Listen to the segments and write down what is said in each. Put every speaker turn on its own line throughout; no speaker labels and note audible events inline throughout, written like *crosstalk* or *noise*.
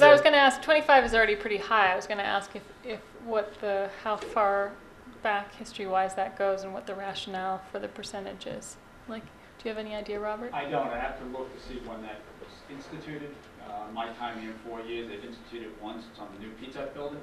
'Cause I was going to ask, 25 is already pretty high. I was going to ask if, if what the, how far back history-wise that goes and what the rationale for the percentage is. Like, do you have any idea, Robert?
I don't, I have to look to see when that was instituted. Uh, My time here, four years, they've instituted once, it's on the new Pizza Hut building,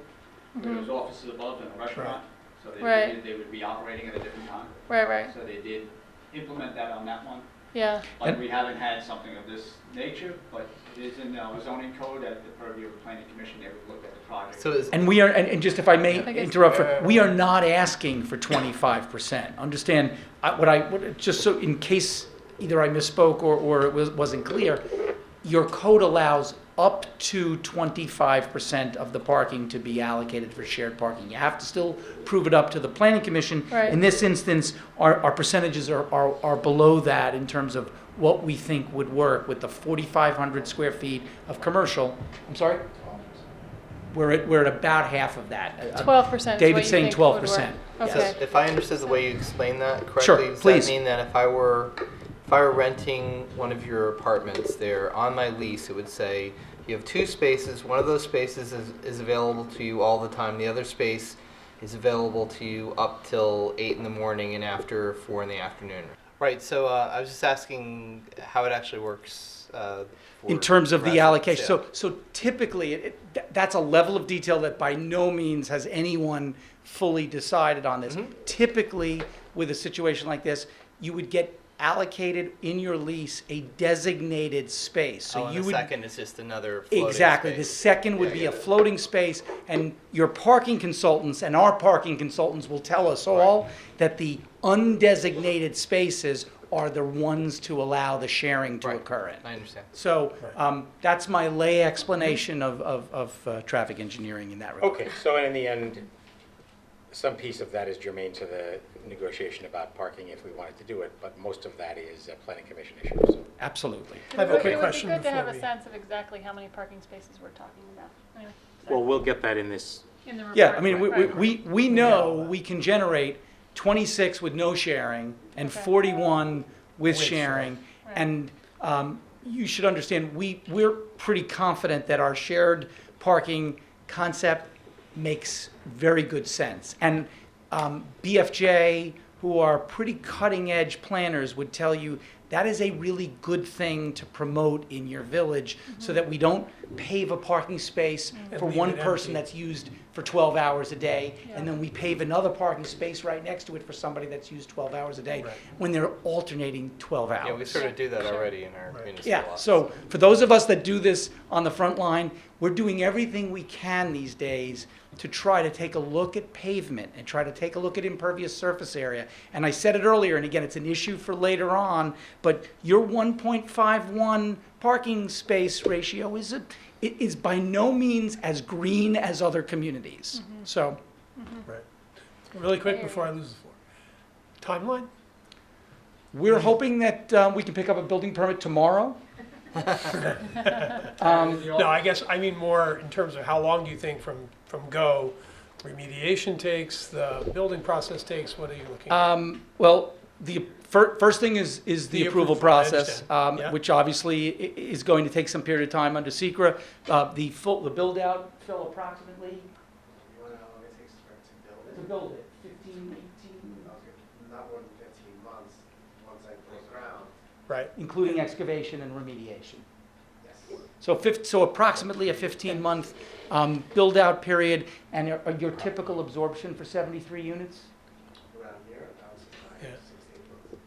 where
Mm-hmm.
there's offices above and a restaurant, so they
Right.
figured they would be operating at a different time.
Right, right,
So they did implement that on that one.
yeah,
Like,
And-
we haven't had something of this nature, but it is in the zoning code at the purview of the planning commission, they would look at the project.
So is,
And we are, and, and just if I
I
may
guess-
interrupt, for, we are not asking for twenty-five percent. Understand, I, what I, what, just so in case either I misspoke or, or it was, wasn't clear, your code allows up to twenty-five percent of the parking to be allocated for shared parking. You have to still prove it up to the planning commission.
Right.
In this instance, our, our percentages are, are, are below that in terms of what we think would work with the forty-five hundred square feet of commercial. I'm sorry? We're at, we're at about half of that. Uh,
12% is what
David's
you
saying
think would work.
12%, yes.
so
Okay.
if I understood the way you explained that correctly,
Sure,
does
please.
that mean that if I were if I were renting one of your apartments there on my lease, it would say you have two spaces. One of those spaces is, is available to you all the time. The other space is available to you up till eight in the morning and after four in the afternoon. Right. So uh, I was just asking how it actually works. Uh,
In
for
terms of the
residents,
allocation,
yeah.
so, so typically, it- it, th- that's a level of detail that by no means has anyone fully decided on this.
Mhm.
Typically, with a situation like this, you would get allocated in your lease a designated space.
Oh,
So
and
you
the
would
second is just another floating
Exactly. The
space.
second would
Yeah,
be
yeah.
a floating space, and your parking consultants and our parking consultants will tell us all that the undesignated spaces are the ones to allow the sharing to
Right.
occur in.
I understand.
So um, that's my lay explanation of, of, of uh, traffic engineering in that regard.
Okay, so in the end, some piece of that is germane to the negotiation about parking if we wanted to do it, but most of that is a planning commission issue, so.
Absolutely.
It
I have a
would-
quick question
It would be good to have
before
a
we-
sense of exactly how many parking spaces we're talking about. Anyway, sorry.
Well, we'll get that in this,
In the report.
Yeah, I mean, we, we,
Right.
we, we know we can generate 26 with no sharing and
Okay.
41 with sharing.
Right.
And um, you should understand, we, we're pretty confident that our shared parking concept makes very good sense. And um, BFJ, who are pretty cutting edge planners, would tell you that is a really good thing to promote in your village
Mm-hmm.
so that we don't pave a parking space
And
for
leave
one
it
person
empty.
that's used for 12 hours a day,
Yeah.
and then we pave another parking space right next to it for somebody that's used 12 hours a day
Right.
when they're alternating 12 hours.
Yeah, we sort of do that
Sure.
already in our
Right.
municipal
Yeah,
laws.
so for those of us that do this on the front line, we're doing everything we can these days to try to take a look at pavement and try to take a look at impervious surface area. And I said it earlier, and again, it's an issue for later on, but your 1.51 parking space ratio is, a, it is by no means as green as other communities. So,
Right. Really quick before I lose the floor. Timeline?
We're hoping that um, we can pick up a building permit
*laughs*
tomorrow. Um,
No, I guess, I mean more in terms of how long do you think from, from go remediation takes, the building process takes, what are you looking at?
um, well, the fir- first thing is is the,
The
approval
approval, I
process,
understand.
um,
Yeah.
which obviously i- is going to take some period of time under Secra. Uh, the full the build out, Phil, approximately
You wanna know how long it takes for it to build it?
to build it, 15, 18,
Okay, Not more than fifteen months, once I break ground,
Right,
including excavation and remediation.
yes.
So, fif- so approximately a 15 month um, build out period, and your, your typical absorption for 73 units.
Around here, that was five,
Yeah.
six, eight months.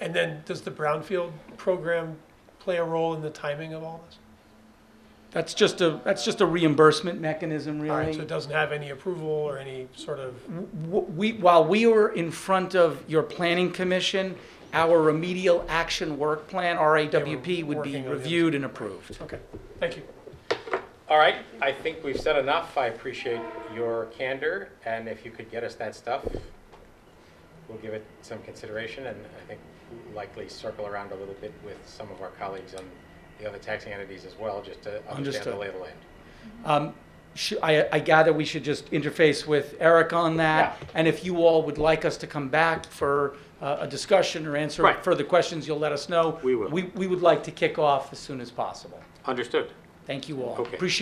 and then does the brownfield program play a role in the timing of all this?
That's just a that's just a reimbursement mechanism, really.
All right, so it doesn't have any approval or any sort of,
w- we, while we were in front of your planning commission, our remedial action work plan, RAWP, would
working
be
on the other-
reviewed and approved.
okay, thank you.
all right, I think we've said enough, I appreciate your candor, and if you could get us that stuff, we'll give it some consideration, and I think likely circle around a little bit with some of our colleagues on the other taxing entities as well, just to understand the
Understood.
lay of the land.
Um, sh- I, I gather we should just interface with Eric on that. And if you all would like us to come back for uh, a discussion or answer
Right.
further questions, you'll let us know.
We will.
We, we would like to kick off as soon as possible.
Understood.
Thank you all.
Okay.
Appreciate